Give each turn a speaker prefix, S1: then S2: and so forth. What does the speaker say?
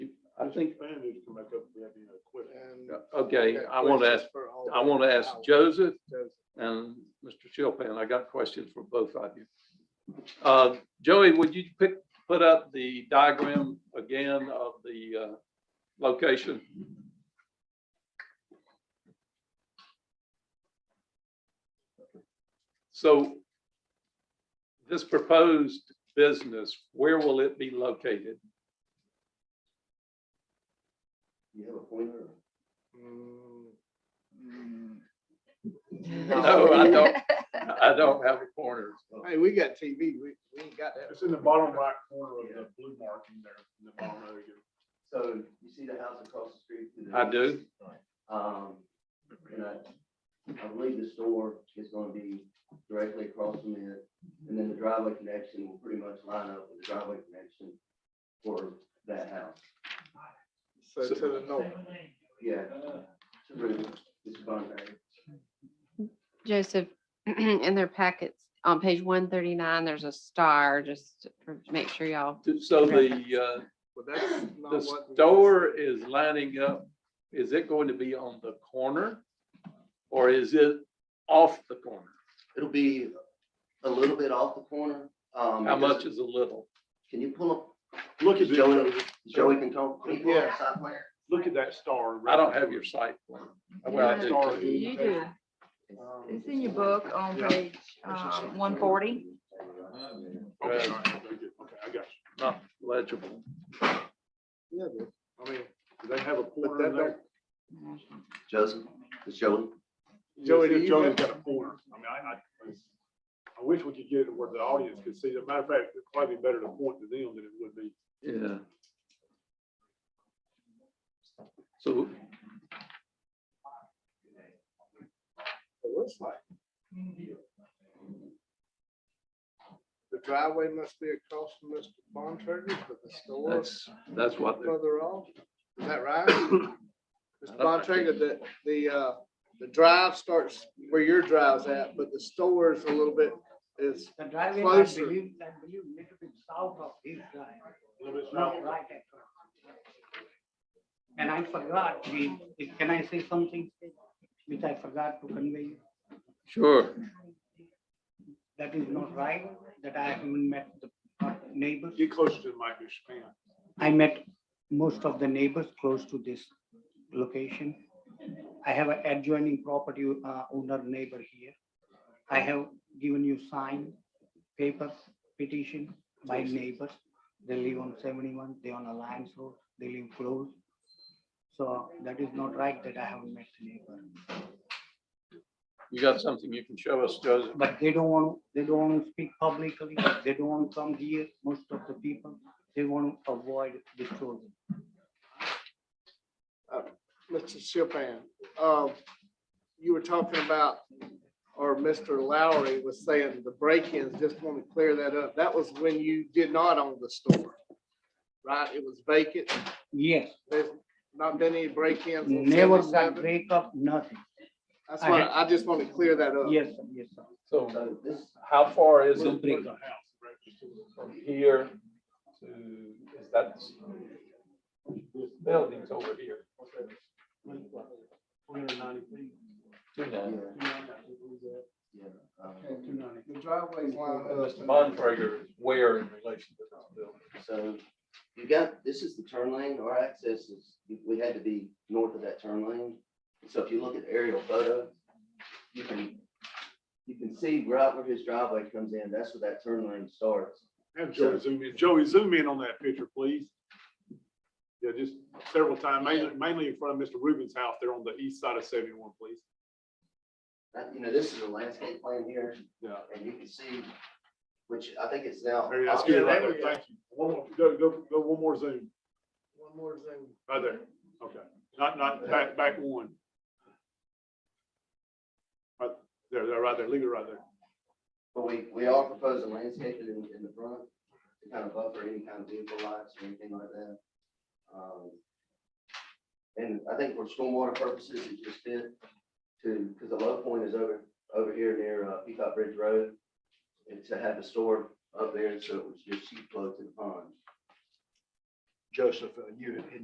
S1: think-
S2: Expanders come back up, we have, you know, quit.
S1: And-
S3: Okay,
S1: Got
S3: I want to ask,
S1: questions for all
S3: I want to
S1: the
S3: ask
S1: hours.
S3: Joseph
S1: Joseph.
S3: and Mr. Chilpan. I got questions for both of you. Uh, Joey, would you pick, put up the diagram again of the uh, location? So this proposed business, where will it be located?
S2: You have a pointer?
S1: Mm,
S3: No, I don't, I don't have a corner.
S1: Hey, we got TV, we, we ain't got that.
S2: It's in the bottom right corner of the blue marking there, in the bottom right again.
S4: So you see the house across the street? to
S3: I
S4: the-
S3: do.
S4: Um, and I, I believe the store is gonna be directly across from it. And then the driveway connection will pretty much line up with the driveway connection for that house.
S1: So to the north.
S4: Yeah. To Ruth, this is Bunbury.
S5: Joseph, in their packets, on page one thirty-nine, there's a star, just for, make sure y'all,
S3: So the, uh,
S1: Well, that's not
S3: The
S1: what we-
S3: store is lining up, is it going to be on the corner? Or is it off the corner?
S4: It'll be a little bit off the corner. um,
S3: How
S4: because-
S3: much is a little?
S4: Can you pull up,
S2: Look at
S4: Joey,
S2: this,
S4: Joey can talk. can you pull up the
S1: Yeah.
S4: side plan?
S2: look at that star.
S3: I don't have your site plan. Well, I do.
S2: Star.
S6: You do.
S4: Um,
S6: It's in your book on page um, one forty.
S2: Okay, all right, very good. Okay, I got you.
S3: Not legible.
S1: Yeah, but- I mean,
S2: Do they have a
S1: but
S2: pointer
S1: that
S2: in there?
S1: don't,
S4: Joseph, it's Joey.
S1: Joey, do
S2: Joey,
S1: you
S2: Joey's
S1: have-
S2: got a pointer. I mean, I, I, I wish we could get it where the audience could see. As a matter of fact, it'd probably be better to point to them than it would be.
S3: Yeah. So
S1: it looks like. The driveway must be across from Mr. Bontrager, but the store is
S3: that's, that's what, they're-
S1: further off. Is that right? Mr.
S3: I don't think-
S1: Bontrager, the, the, uh, the drive starts where your drive's at, but the store is a little bit, is
S7: The driveway, I
S1: Closer.
S7: believe, I believe little bit south of his drive,
S2: A little bit
S7: not
S2: south.
S7: right at. And I forgot, the- can I say something which I forgot to convey?
S3: sure,
S7: That is not right, that I haven't met the neighbors.
S2: Get closer to the mic, Mr. Span.
S7: I met most of the neighbors close to this location. I have an adjoining property uh, owner neighbor here. I have given you sign, paper, petition by neighbors. They live on seventy-one, they on Alliance Road, they live close. So that is not right that I haven't met the neighbor.
S3: you got something you can show us, Joseph?
S7: But they don't want, they don't want to speak publicly, they don't want to come here, most of the people, they want to avoid disturbance.
S1: Mr. Chopin, um, you were talking about, or Mr. Lowry was saying the break-ins, just want to clear that up. That was when you did not own the store, right? It was vacant.
S7: Yes,
S1: There's not been any break-ins. on
S7: never got
S1: 77.
S7: break up, nothing.
S1: That's why, I just want to clear that up.
S7: Yes, sir, yes, sir.
S3: So
S4: So this,
S3: how far is
S2: Where's
S3: it
S2: where's
S3: from
S2: the house? right? Just to the front.
S3: here to, is that this building's over here?
S2: Four hundred ninety feet.
S3: Two
S4: yeah,
S3: nine.
S4: yeah. um,
S1: The driveway's lined up.
S3: Mr. Bontrager is where in relation to this building?
S4: So you got, this is the turn lane, our access is, we had to be north of that turn lane. So if you look at the aerial photo, you can, you can see right where his driveway comes in, that's where that turn lane starts.
S2: Have Joey zoom in. Joey, zoom in on that picture, please. Yeah, just several times, mainly, mainly in front of Mr. Rubin's house there on the east side of seventy-one, please.
S4: That, you know, this is a landscape plan here,
S2: Yeah.
S4: and you can see, which I think it's now.
S2: Very nice.
S1: Yeah,
S2: Good, right
S1: there
S2: there.
S1: we go.
S2: Thank you. One more, go, go, go one more zoom.
S1: One more zoom.
S2: Right there. Okay. Not, not, back, back one. Right there, there, right there. Leave it right there.
S4: But we, we are proposing landscaping in, in the front to kind of buffer any kind of vehicle lights or anything like that. Um, And I think for stormwater purposes, it just fit to, because the low point is over, over here near uh, Peacock Bridge Road. And to have the store up there, so it was just sheet flow to the pond.
S8: Joseph, uh, you,